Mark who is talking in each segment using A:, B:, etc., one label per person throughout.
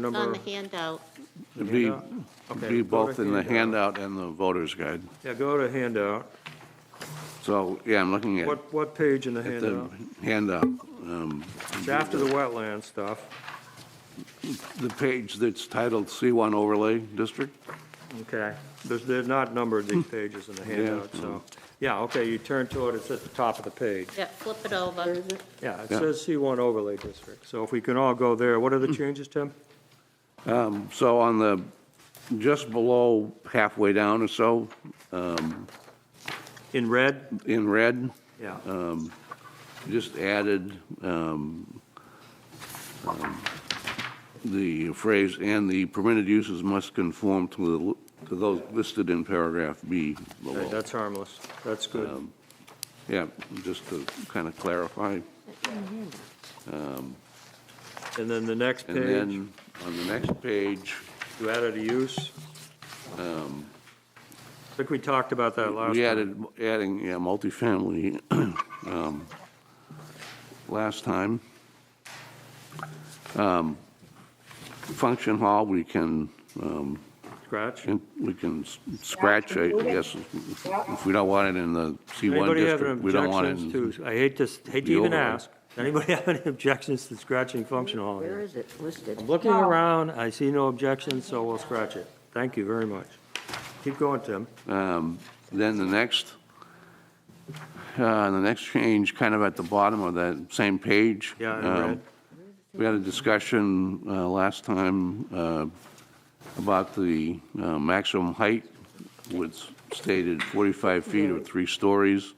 A: It's on
B: Number,
A: the handout.
C: It'd be,
B: Handout? Okay,
C: be
B: go to
C: both in the
B: handout.
C: handout and the voter's guide.
B: yeah, go to handout.
C: So, yeah, I'm looking at
B: What, what page in the
C: at the
B: handout?
C: handout. um,
B: It's after the wetland stuff.
C: The page that's titled C1 Overlay District.
B: Okay. There's, they're not numbered, these pages in the handout, so.
C: no.
B: Yeah, okay, you turn to it, it's at the top of the page.
A: Yeah, flip it over.
B: Yeah, it
C: Yeah. Mm.
B: says C1 overlay district. So if we can all go there, what are the changes, Tim?
C: So on the, just below halfway down or so,
B: In red?
C: in red,
B: Yeah.
C: just added um, um, the phrase, "And the permitted uses must conform to the, to those listed in paragraph B
B: Okay,
C: below."
B: That's harmless. That's good.
C: um, Yeah, just to kind of clarify.
B: And then the next
C: And
B: page,
C: then, on the next page,
B: you added a use. I think we talked about that last
C: um, we
B: time.
C: added, adding, yeah, multifamily, um, last time. Um, Function hall, we can, um,
B: Scratch?
C: we can s- scratch, I guess, if we don't want it in the C1
B: Anybody have
C: district, we don't want it
B: objections
C: in.
B: to, I hate to, s- hate to
C: the
B: even
C: overlay.
B: ask, anybody have any objections to scratching functional hall
D: Where
B: here?
D: is it listed?
B: I'm looking around, I see no objections, so we'll scratch it. Thank you very much. Keep going, Tim.
C: Um, Then the next, uh, the next change, kind of at the bottom of that same page.
B: Yeah, I
C: um,
B: read.
C: We had a discussion uh, last time uh, about the uh, maximum height, which stated 45 feet or three stories.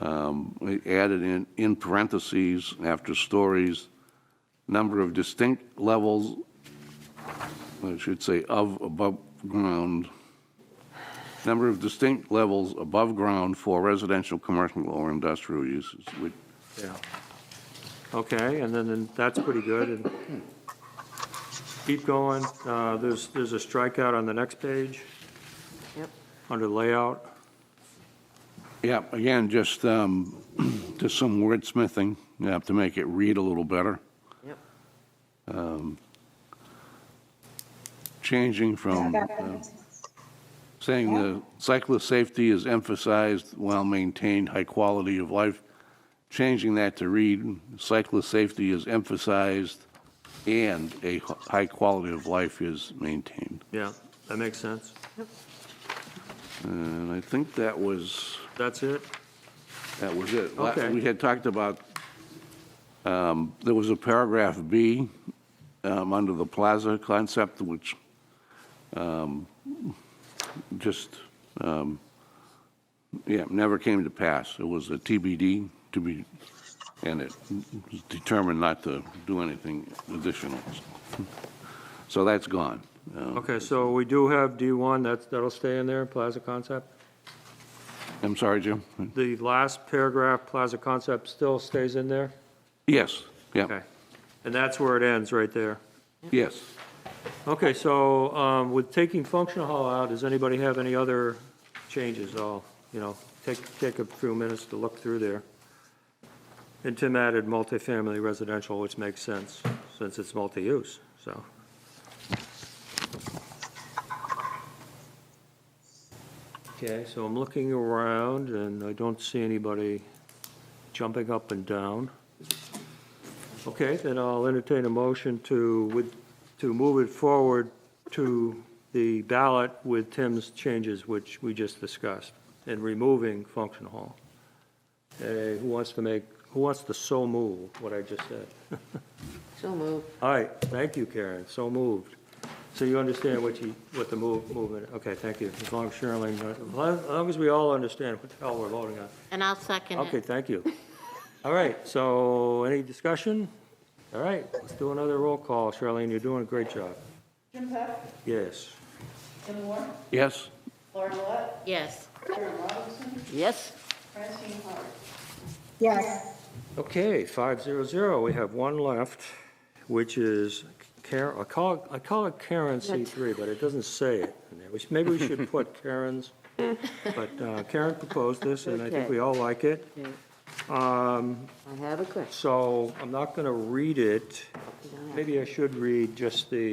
C: Um, We added in, in parentheses, after stories, number of distinct levels, I should say of above ground, number of distinct levels above ground for residential, commercial, or industrial uses, which
B: Yeah. Okay, and then, then that's pretty good, and keep going. Uh, there's, there's a strikeout on the next page,
D: Yep.
B: under layout.
C: Yeah, again, just, um, just some wordsmithing, you have to make it read a little better. Um,
D: Yep.
C: Changing from uh, saying the cyclist safety is emphasized while maintained high quality of life, changing that to read cyclist safety is emphasized and a h- high quality of life is maintained.
B: Yeah, that makes sense.
C: And I think that was,
B: That's it?
C: that was it. La-
B: Okay.
C: We had talked about, um, there was a paragraph B um, under the plaza concept, which um, just, um, yeah, never came to pass. It was a TBD to be, and it was determined not to do anything additional. So that's gone. Um,
B: Okay, so we do have D1, that's, that'll stay in there, plaza concept?
C: I'm sorry, Jim?
B: The last paragraph, plaza concept, still stays in there?
C: Yes, yeah,
B: Okay. And that's where it ends, right there.
C: yes.
B: Okay, so um, with taking functional hall out, does anybody have any other changes? I'll, you know, take, take a few minutes to look through there. And Tim added multifamily residential, which makes sense, since it's multi-use, so. Okay, so I'm looking around, and I don't see anybody jumping up and down. Okay, then I'll entertain a motion to, with, to move it forward to the ballot with Tim's changes, which we just discussed, and removing function hall. Uh, who wants to make, who wants to so move what I just said?
D: So moved.
B: All right, thank you, Karen, so moved. So you understand what you, what the move, movement, okay, thank you, as long as Shirley, as long as we all understand what the hell we're voting on.
A: And I'll second
B: Okay,
A: it.
B: thank you. All right, so any discussion? All right, let's do another roll call. Charlene, you're doing a great job.
E: Jim Peck,
B: Yes.
E: Tim Moore,
C: Yes?
E: Laura Millette,
A: Yes.
E: Karen Robinson,
D: Yes?
E: Francine Howard.
B: Okay, five zero zero, we have one left, which is Karen, I call, it- I call it Karen C three, but it doesn't say it. in there. We should- Maybe we should put Karen's, but uh, Karen proposed this, and I think
D: Okay.
B: we all like it.
A: I have a question.
B: So I'm not going to read it.
A: You don't have to.
B: Maybe I should read just the